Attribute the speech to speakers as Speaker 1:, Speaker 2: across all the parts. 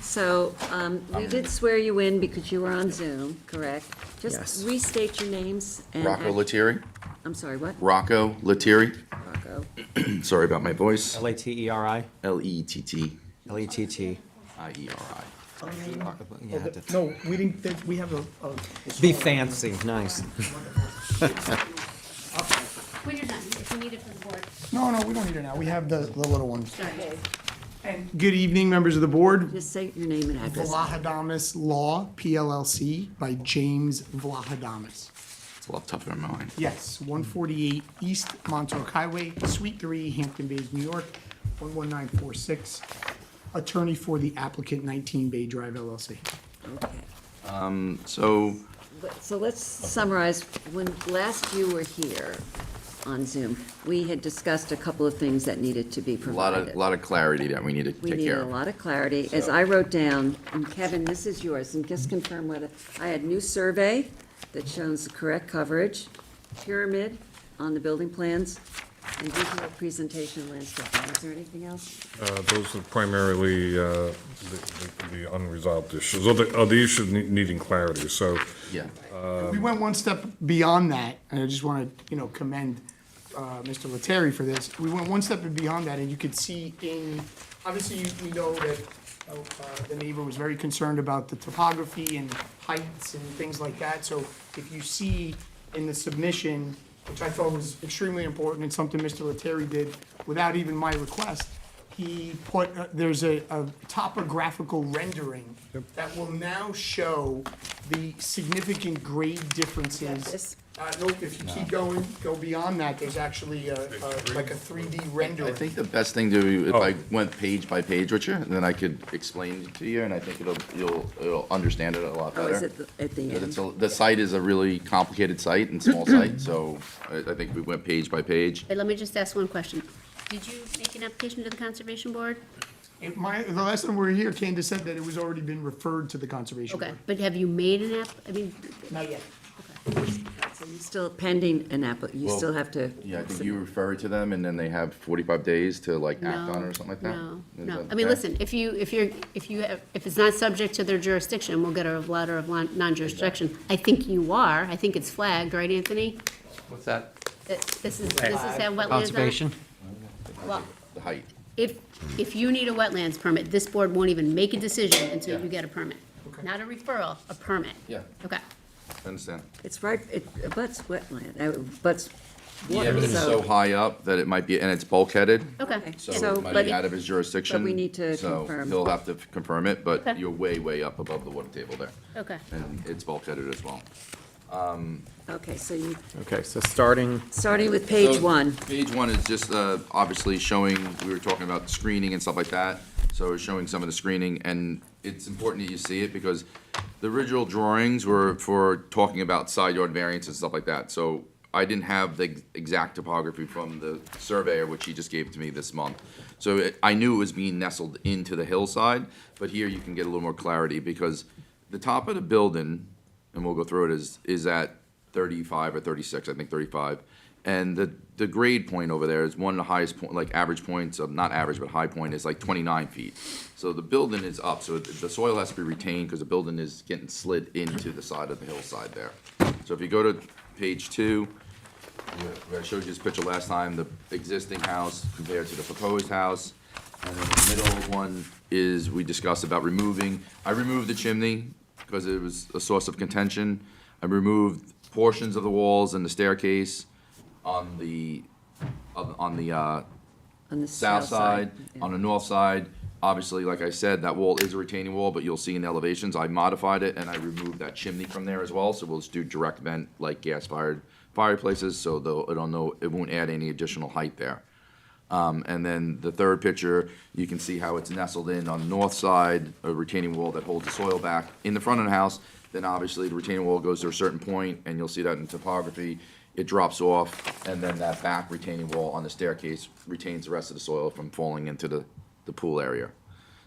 Speaker 1: So um, we did swear you in because you were on Zoom, correct?
Speaker 2: Yes.
Speaker 1: Just restate your names and.
Speaker 2: Rocco Lettieri.
Speaker 1: I'm sorry, what?
Speaker 2: Rocco Lettieri.
Speaker 1: Rocco.
Speaker 2: Sorry about my voice.
Speaker 3: L A T E R I,
Speaker 2: L E T T
Speaker 3: L E T T.
Speaker 2: I E R I.
Speaker 3: Yeah, that's-
Speaker 4: No, we didn't, think- we have a, a-
Speaker 3: E Be fancy, nice.
Speaker 5: When you're done, if you need it for the board,
Speaker 4: no, no, we don't need it now, we have the, the little ones.
Speaker 5: sorry.
Speaker 4: Good evening, members of the board.
Speaker 1: Just say your name and address.
Speaker 4: Vlahadamas Law, PLLC, by James Vlahadamas.
Speaker 2: It's a lot tougher than mine.
Speaker 4: Yes, 148 East Montauk Highway, Suite 3, Hampton Bays, New York, 11946. Attorney for the applicant, 19 Bay Drive LLC.
Speaker 1: Okay.
Speaker 2: So
Speaker 1: But- So let's summarize, when last you were here on Zoom, we had discussed a couple of things that needed to be
Speaker 2: a lot
Speaker 1: provided.
Speaker 2: of, lot of clarity that we need to
Speaker 1: We
Speaker 2: take
Speaker 1: needed
Speaker 2: care
Speaker 1: a
Speaker 2: of.
Speaker 1: lot of clarity. As I wrote down, and Kevin, this is yours, and just confirm whether, I had new survey that shows the correct coverage, pyramid on the building plans, and visual presentation landscape. Is there anything else?
Speaker 6: Uh, Those are primarily uh, the the- the unresolved issues, or the, or the issues ne- needing clarity, so.
Speaker 2: Yeah.
Speaker 4: We went one step beyond that, and I just want to, you know, commend uh, Mr. Lettieri for this. We went one step beyond that, and you could see in, obviously, you- we know that uh, the neighbor was very concerned about the topography and heights and things like that. So if you see in the submission, which I thought was extremely important and something Mr. Lettieri did without even my request, he put, uh, there's a, a topographical rendering that will now show the significant grade differences. Uh, nope, if you keep going, go beyond that, there's actually a, a- like a three D
Speaker 2: I
Speaker 4: rendering.
Speaker 2: think the best thing to, do if I
Speaker 6: Oh.
Speaker 2: went page by page with you, then I could explain it to you, and I think it'll, you'll, you'll understand it a lot
Speaker 1: Oh,
Speaker 2: better.
Speaker 1: is it the- at the
Speaker 2: But it's
Speaker 1: end?
Speaker 2: a- The site is a really complicated site and small site, so I, I think we went page by page.
Speaker 5: But let me just ask one question. Did you make an application to the conservation board?
Speaker 4: It- My, the last time we were here, Candace said that it was already been referred to the conservation
Speaker 5: Okay,
Speaker 4: board.
Speaker 5: but have you made an app, I mean,
Speaker 4: Not yet.
Speaker 1: So you're still pending an app, you
Speaker 2: Well,
Speaker 1: still have to.
Speaker 2: Yeah, I think you refer it to them, and then they have forty-five days to like
Speaker 5: no.
Speaker 2: act on it or something like that.
Speaker 5: No,
Speaker 2: Is
Speaker 5: no.
Speaker 2: that
Speaker 5: I
Speaker 2: okay?
Speaker 5: mean, listen, if you, if you're, if you, have- if it's not subject to their jurisdiction, we'll get a letter of lon- non-jurisdiction. I think you are. I think it's flagged, right, Anthony?
Speaker 7: What's that?
Speaker 5: That This is, this is how wetlands are.
Speaker 3: Conservation?
Speaker 5: Well,
Speaker 2: The height.
Speaker 5: If, if you need a wetlands permit, this board won't even make a decision until you get a permit. Not a referral, a permit.
Speaker 2: Yeah.
Speaker 5: Okay.
Speaker 2: I understand.
Speaker 1: It's right, it butts wetland, uh, butts
Speaker 2: Yeah,
Speaker 1: water,
Speaker 2: but it's so
Speaker 1: so,
Speaker 2: high up that it might be, and it's bulkheaded,
Speaker 5: Okay.
Speaker 2: so
Speaker 1: So,
Speaker 2: it might
Speaker 1: but-
Speaker 2: be out of his jurisdiction.
Speaker 1: but we need to
Speaker 2: So
Speaker 1: confirm.
Speaker 2: he'll have to confirm it, but
Speaker 5: Okay.
Speaker 2: you're way, way up above the water table there.
Speaker 5: Okay.
Speaker 2: And it's bulkheaded as well.
Speaker 1: okay, so you,
Speaker 3: Okay, so starting,
Speaker 1: starting with page
Speaker 2: So,
Speaker 1: one.
Speaker 2: Page one is just, uh, obviously showing, we were talking about screening and stuff like that, so it's showing some of the screening, and it's important that you see it, because the original drawings were for talking about side yard variance and stuff like that, so I didn't have the exact topography from the surveyor, which he just gave to me this month. So it- I knew it was being nestled into the hillside, but here you can get a little more clarity, because the top of the building, and we'll go through it, is, is at thirty-five or thirty-six, I think thirty-five. And the, the grade point over there is one of the highest point, like average points of, not average, but high point is like twenty-nine feet. So the building is up, so the the soil has to be retained because the building is getting slid into the side of the hillside there. So if you go to page two, you- I showed you this picture last time, the existing house compared to the proposed house. And then the middle one is, we discussed about removing, I removed the chimney because it was a source of contention. I removed portions of the walls and the staircase on the, on on the, uh,
Speaker 1: On the
Speaker 2: south side,
Speaker 1: yeah.
Speaker 2: on the north side. Obviously, like I said, that wall is a retaining wall, but you'll see in elevations, I modified it and I removed that chimney from there as well, so we'll just do direct vent like gas fired fireplaces, so though, I don't know, it won't add any additional height there. Um, and then the third picture, you can see how it's nestled in on the north side, a retaining wall that holds the soil back in the front of the house. Then obviously the retaining wall goes to a certain point, and you'll see that in topography, it drops off, and then that back retaining wall on the staircase retains the rest of the soil from falling into the, the pool area.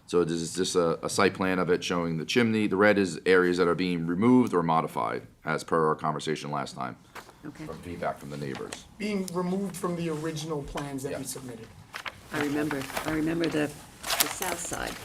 Speaker 2: So this is just a, a site plan of it showing the chimney, the red is areas that are being removed or modified, as per our conversation last time,
Speaker 1: Okay,
Speaker 2: from feedback from the neighbors.
Speaker 4: Being removed from the original plans that
Speaker 2: Yeah.
Speaker 4: we submitted.
Speaker 1: I remember, I remember the, the south side.